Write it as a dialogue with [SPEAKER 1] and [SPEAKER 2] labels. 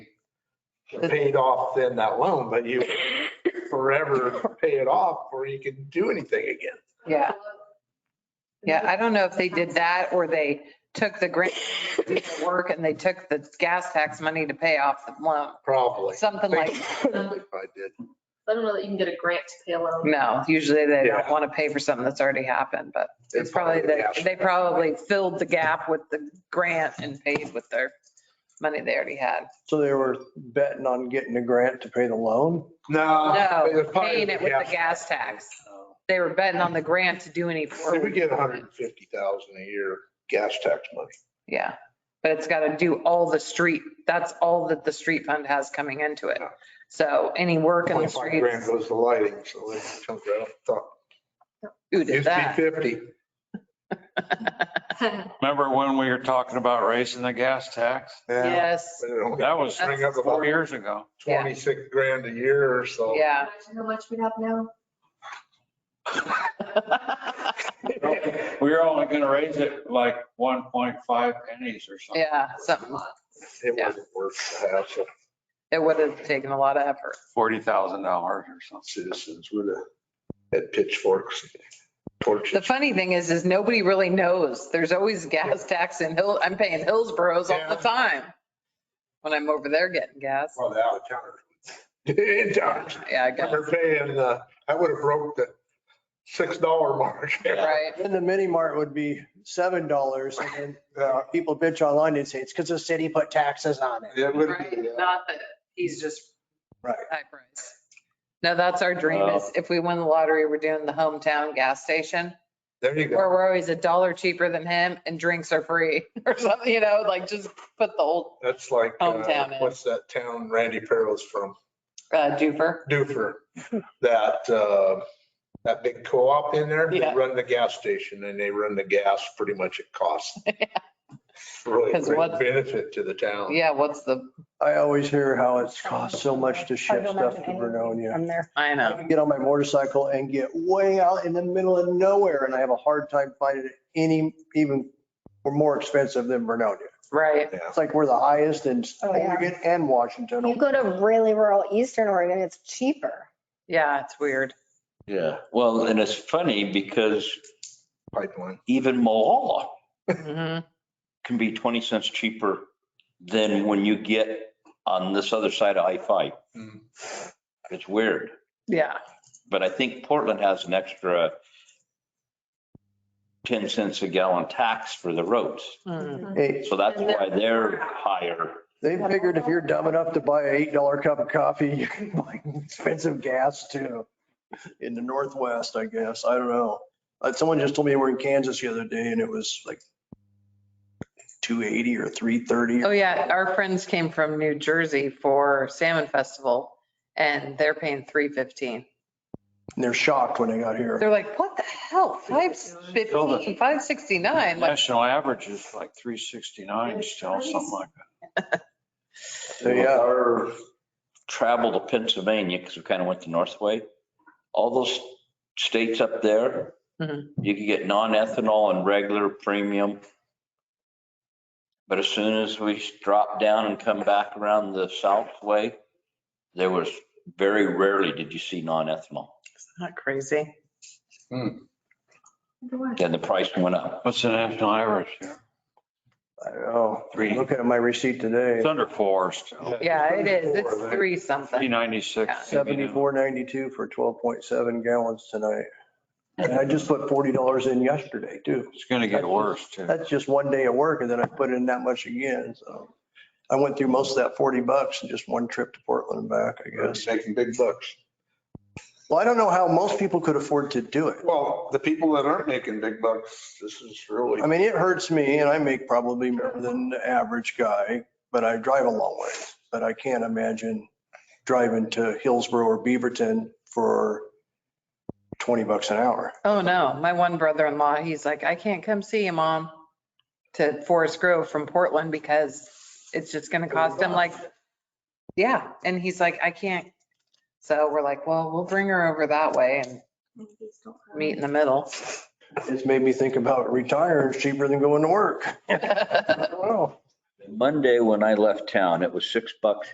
[SPEAKER 1] paid off then that loan, but you forever pay it off before you can do anything again.
[SPEAKER 2] Yeah. Yeah, I don't know if they did that or they took the grant, did the work and they took the gas tax money to pay off the loan.
[SPEAKER 1] Probably.
[SPEAKER 2] Something like,
[SPEAKER 1] I think I did.
[SPEAKER 3] I don't know that you can get a grant to pay a loan.
[SPEAKER 2] no, usually they don't
[SPEAKER 1] Yeah.
[SPEAKER 2] want to pay for something that's already happened, but it's
[SPEAKER 1] It
[SPEAKER 2] probably,
[SPEAKER 1] probably
[SPEAKER 2] that
[SPEAKER 1] happened.
[SPEAKER 2] they probably filled the gap with the grant and paid with their money they already had.
[SPEAKER 4] So they were betting on getting a grant to pay the loan?
[SPEAKER 1] No. Uh, it was
[SPEAKER 2] No,
[SPEAKER 1] probably-
[SPEAKER 2] paying it with the gas tax. They were betting on the grant to do any.
[SPEAKER 1] So We get 150,000 a year gas tax money.
[SPEAKER 2] Yeah, but it's got to do all the street, that's all that the street fund has coming into it. So any work in the
[SPEAKER 1] 25 grand
[SPEAKER 2] streets,
[SPEAKER 1] goes to lighting, so it's chunk right off the top.
[SPEAKER 2] who did
[SPEAKER 1] Used to
[SPEAKER 2] that?
[SPEAKER 1] be 50.
[SPEAKER 5] Remember when we were talking about raising the gas tax?
[SPEAKER 1] Yeah.
[SPEAKER 2] Yes,
[SPEAKER 1] But it only
[SPEAKER 5] That was
[SPEAKER 1] Bring up
[SPEAKER 5] four
[SPEAKER 1] about
[SPEAKER 5] years ago.
[SPEAKER 1] 26 grand a year or so.
[SPEAKER 2] yeah.
[SPEAKER 3] Imagine how much we have now.
[SPEAKER 5] We were only going to raise it like 1.5 pennies or something.
[SPEAKER 2] Yeah, something,
[SPEAKER 1] It
[SPEAKER 2] Yeah.
[SPEAKER 1] wasn't worth the hassle.
[SPEAKER 2] it would have taken a lot of effort.
[SPEAKER 5] $40,000 or something.
[SPEAKER 1] Citizens would have had pitchforks, and torches.
[SPEAKER 2] The funny thing is, is nobody really knows. There's always gas tax in Hill, I'm paying Hillsboroughs all the
[SPEAKER 1] Yeah.
[SPEAKER 2] time when I'm over there getting gas.
[SPEAKER 1] Well, the out of towners. In towners.
[SPEAKER 2] Yeah, I guess,
[SPEAKER 1] They're paying, uh, I would have broke the six dollar mark.
[SPEAKER 2] right?
[SPEAKER 4] Then the mini mart would be seven dollars and then
[SPEAKER 1] Yeah,
[SPEAKER 4] people bitch online and say it's because the city put taxes on it.
[SPEAKER 1] It would
[SPEAKER 2] Right,
[SPEAKER 1] be, yeah.
[SPEAKER 2] not that he's just.
[SPEAKER 4] Right.
[SPEAKER 2] High price. No, that's our dream is if we win the lottery, we're doing the hometown gas station
[SPEAKER 1] There you
[SPEAKER 2] where
[SPEAKER 1] go.
[SPEAKER 2] we're always a dollar cheaper than him and drinks are free or something, you know, like just put the old
[SPEAKER 1] That's like, uh,
[SPEAKER 2] Hometown is.
[SPEAKER 1] what's that town Randy Perro's from?
[SPEAKER 2] uh, juper.
[SPEAKER 1] Dufer. That, uh, that big co-op in there, they
[SPEAKER 2] Yeah.
[SPEAKER 1] run the gas station and they run the gas pretty much at cost. Really
[SPEAKER 2] 'Cause
[SPEAKER 1] great
[SPEAKER 2] what-
[SPEAKER 1] benefit to the town.
[SPEAKER 2] Yeah, what's the,
[SPEAKER 4] I always hear how it's cost so much to ship stuff to Vernonia.
[SPEAKER 6] I'm there.
[SPEAKER 2] I
[SPEAKER 4] I
[SPEAKER 2] know.
[SPEAKER 4] can get on my motorcycle and get way out in the middle of nowhere and I have a hard time finding it any, even more expensive than Vernonia.
[SPEAKER 2] Right.
[SPEAKER 1] Yeah.
[SPEAKER 4] It's like we're the highest in
[SPEAKER 6] Oh, yeah.
[SPEAKER 4] Oregon and Washington.
[SPEAKER 6] You go to really rural Eastern Oregon, it's cheaper.
[SPEAKER 2] Yeah, it's weird.
[SPEAKER 7] Yeah, well, and it's funny because
[SPEAKER 1] Pipeline.
[SPEAKER 7] even Moala
[SPEAKER 2] Mhm.
[SPEAKER 7] can be 20 cents cheaper than when you get on this other side of I-5.
[SPEAKER 1] Hmm.
[SPEAKER 7] It's weird,
[SPEAKER 2] Yeah.
[SPEAKER 7] but I think Portland has an extra 10 cents a gallon tax for the roads.
[SPEAKER 2] Mm.
[SPEAKER 4] Hey,
[SPEAKER 7] So that's why they're higher.
[SPEAKER 4] They figured if you're dumb enough to buy an eight dollar cup of coffee, you can buy expensive gas too. In the Northwest, I guess. I don't know. Uh, Someone just told me we're in Kansas the other day and it was like two eighty or three thirty.
[SPEAKER 2] Oh, yeah. Our friends came from New Jersey for Salmon Festival and they're paying 315.
[SPEAKER 4] And they're shocked when they got here.
[SPEAKER 2] They're like, what the hell? Five fifteen, five sixty-nine, like,
[SPEAKER 5] National average is like 369 still, something like that.
[SPEAKER 4] So, yeah,
[SPEAKER 7] Our travel to Pennsylvania, because we kind of went the north way, all those states up there,
[SPEAKER 2] Mhm.
[SPEAKER 7] you could get non-ethanol and regular premium. But as soon as we dropped down and come back around the south way, there was very rarely did you see non-ethanol.
[SPEAKER 2] not crazy.
[SPEAKER 7] Then the price went up.
[SPEAKER 5] What's the national average here?
[SPEAKER 4] I don't know.
[SPEAKER 5] Three.
[SPEAKER 4] Look at my receipt today,
[SPEAKER 5] It's under four still,
[SPEAKER 2] Yeah, it is. It's
[SPEAKER 1] Four, I think.
[SPEAKER 2] three something.
[SPEAKER 5] 396.
[SPEAKER 4] seventy-four ninety-two for twelve point seven gallons tonight. And I just put forty dollars in yesterday too.
[SPEAKER 5] It's going to get worse too.
[SPEAKER 4] That's just one day of work and then I put in that much again, so. I went through most of that 40 bucks in just one trip to Portland and back, I guess.
[SPEAKER 1] Making big bucks.
[SPEAKER 4] Well, I don't know how most people could afford to do it.
[SPEAKER 1] Well, the people that aren't making big bucks, this is really.
[SPEAKER 4] I mean, it hurts me and I make probably more than the average guy, but I drive a long ways. But I can't imagine driving to Hillsborough or Beaverton for 20 bucks an hour.
[SPEAKER 2] Oh, no. My one brother-in-law, he's like, I can't come see you, mom, to Forest Grove from Portland because it's just going to cost him like, yeah. And he's like, I can't. So we're like, well, we'll bring her over that way and meet in the middle.
[SPEAKER 4] It's made me think about retiring It's cheaper than going to work. I don't know.
[SPEAKER 7] Monday, when I left town, it was six bucks